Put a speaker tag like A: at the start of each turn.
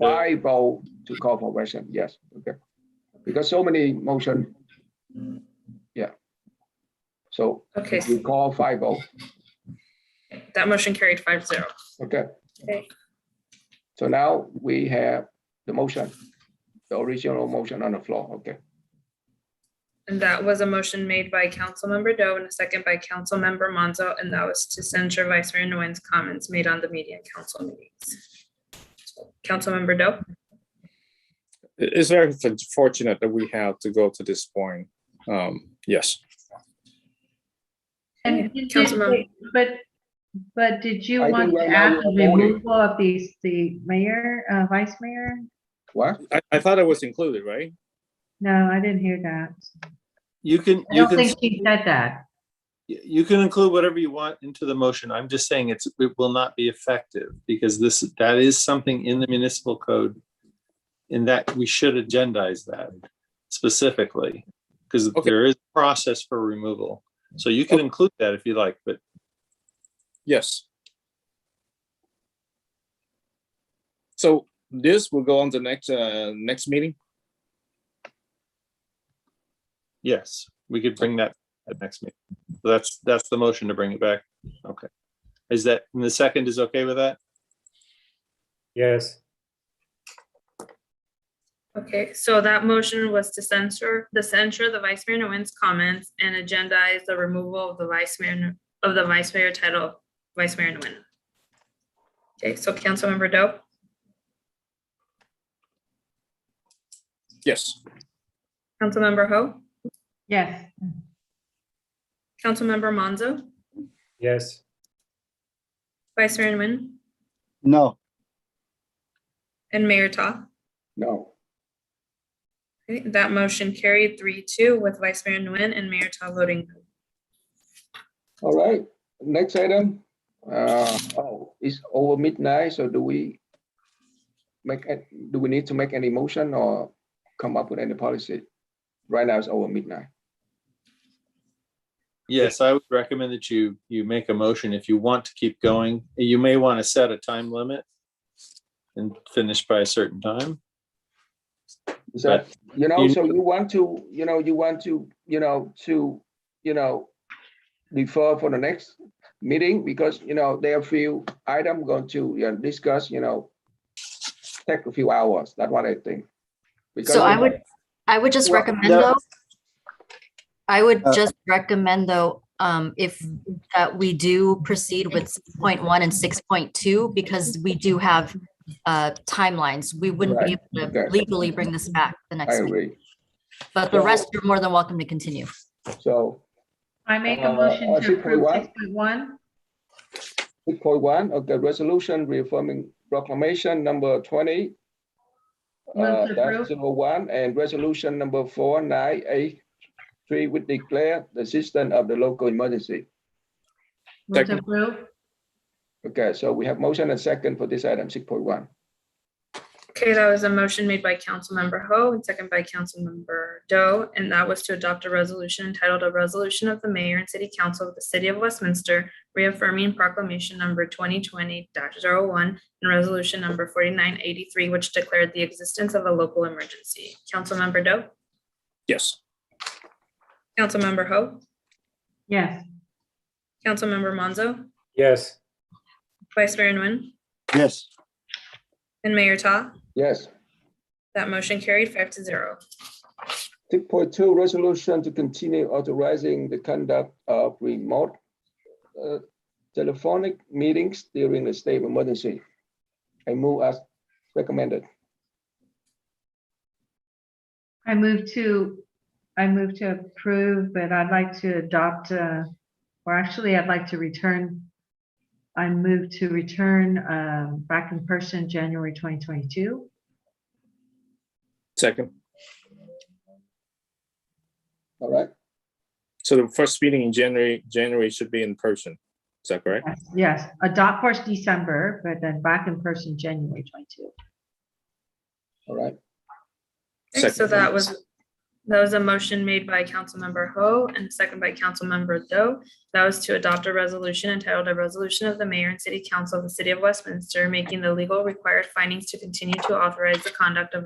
A: I vote to call for version, yes, okay. Because so many motion. Yeah. So
B: Okay,
A: we call five oh, vote,
B: that motion carried five zero.
A: okay?
B: Okay.
A: So now we have the motion, the original motion on the floor, okay?
B: And that was a motion made by Councilmember Doe and a second by Councilmember Monzo, and that was to censure Vice Mayor Nguyen's comments made on the media and council meetings. Councilmember Doe,
C: It- It's very f- fortunate that we have to go to this point. Um, yes,
B: Yeah,
D: And you did
B: Councilmember-
D: say- But, but did you
A: I think
D: want to
A: right now
D: add the
A: we're voting.
D: removal of these, the mayor, uh, vice mayor?
A: What?
C: I, I thought it was included, right?
D: No, I didn't hear that.
E: You can,
D: I
E: you
D: don't
E: can,
D: think she said that.
E: you can include whatever you want into the motion. I'm just saying it's, it will not be effective because this, that is something in the municipal code in that we should agendize that specifically, because
C: Okay.
E: there is process for removal. So you can include that if you like, but
C: Yes. So this will go on the next, uh, next meeting?
E: yes, we could bring that at next meeting. That's, that's the motion to bring it back. Okay. Is that, and the second is okay with that?
F: Yes,
B: okay, so that motion was to censure, the censure the Vice Mayor Nguyen's comments and agendize the removal of the Vice Mayor, of the Vice Mayor title, Vice Mayor Nguyen. Okay, so Councilmember Doe,
C: Yes.
B: Councilmember Ho,
D: Yes,
B: Councilmember Monzo,
F: yes,
B: Vice Mayor Nguyen,
G: No,
B: and Mayor Ta.
A: No,
B: Okay, That motion carried three two with Vice Mayor Nguyen and Mayor Ta voting. no.
A: all right, next item. Uh, oh, it's over midnight, so do we make, a- do we need to make any motion or come up with any policy? Right now it's over midnight.
E: Yes, I would recommend that you, you make a motion if you want to keep going. You may want to set a time limit and finish by a certain time.
A: So, you know,
E: you-
A: so you want to, you know, you want to, you know, to, you know, defer for the next meeting because, you know, there are few item going to you know, discuss, you know, take a few hours. That's what I think. Because,
H: So I
A: you know,
H: would, I would just
A: Well,
H: recommend
A: no.
H: though. I would
G: Uh,
H: just recommend though, um, if, that we do proceed with six point one and six point two, because we do have uh, timelines. We wouldn't be able to
A: okay.
H: legally bring this back the
A: I
H: next week,
A: agree.
H: but the
A: So-
H: rest, you're more than welcome to continue.
A: So
D: I make
A: Uh,
D: a motion
A: uh,
D: to
A: 6.1?
D: approve six point one.
A: six point one of the resolution reaffirming proclamation number twenty.
D: Move
A: Uh,
D: to
A: that's
D: approve.
A: zero one and resolution number four nine eight three would declare the system of the local emergency.
D: Move to
C: Second.
D: approve.
A: Okay, so we have motion and second for this item, six point one.
B: Okay, that was a motion made by Councilmember Ho and second by Councilmember Doe, and that was to adopt a resolution entitled a resolution of the mayor and city council of the city of Westminster reaffirming proclamation number twenty twenty one and resolution number forty-nine eighty-three, which declared the existence of a local emergency. Councilmember Doe,
C: Yes.
B: Councilmember Ho,
D: Yes,
B: Councilmember Monzo,
F: yes,
B: Vice Mayor Nguyen,
G: yes,
B: and Mayor Ta.
A: Yes,
B: That motion carried five to zero.
A: six point two, resolution to continue authorizing the conduct of remote uh, telephonic meetings during the state of emergency. I move as recommended.
D: I move to, I move to approve, but I'd like to adopt, uh, or actually, I'd like to return. I move to return, um, back in person, January twenty twenty-two.
C: Second.
A: All right,
C: So the first meeting in January, January should be in person. Is that correct?
D: Yes, Yes, adopt first December, but then back in person January twenty-two.
A: all right.
B: Okay, So
C: Second.
B: that was That was a motion made by Councilmember Ho and a second by Councilmember Do. That was to adopt a resolution entitled a resolution of the mayor and city council of the city of Westminster making the legal required findings to continue to authorize the conduct of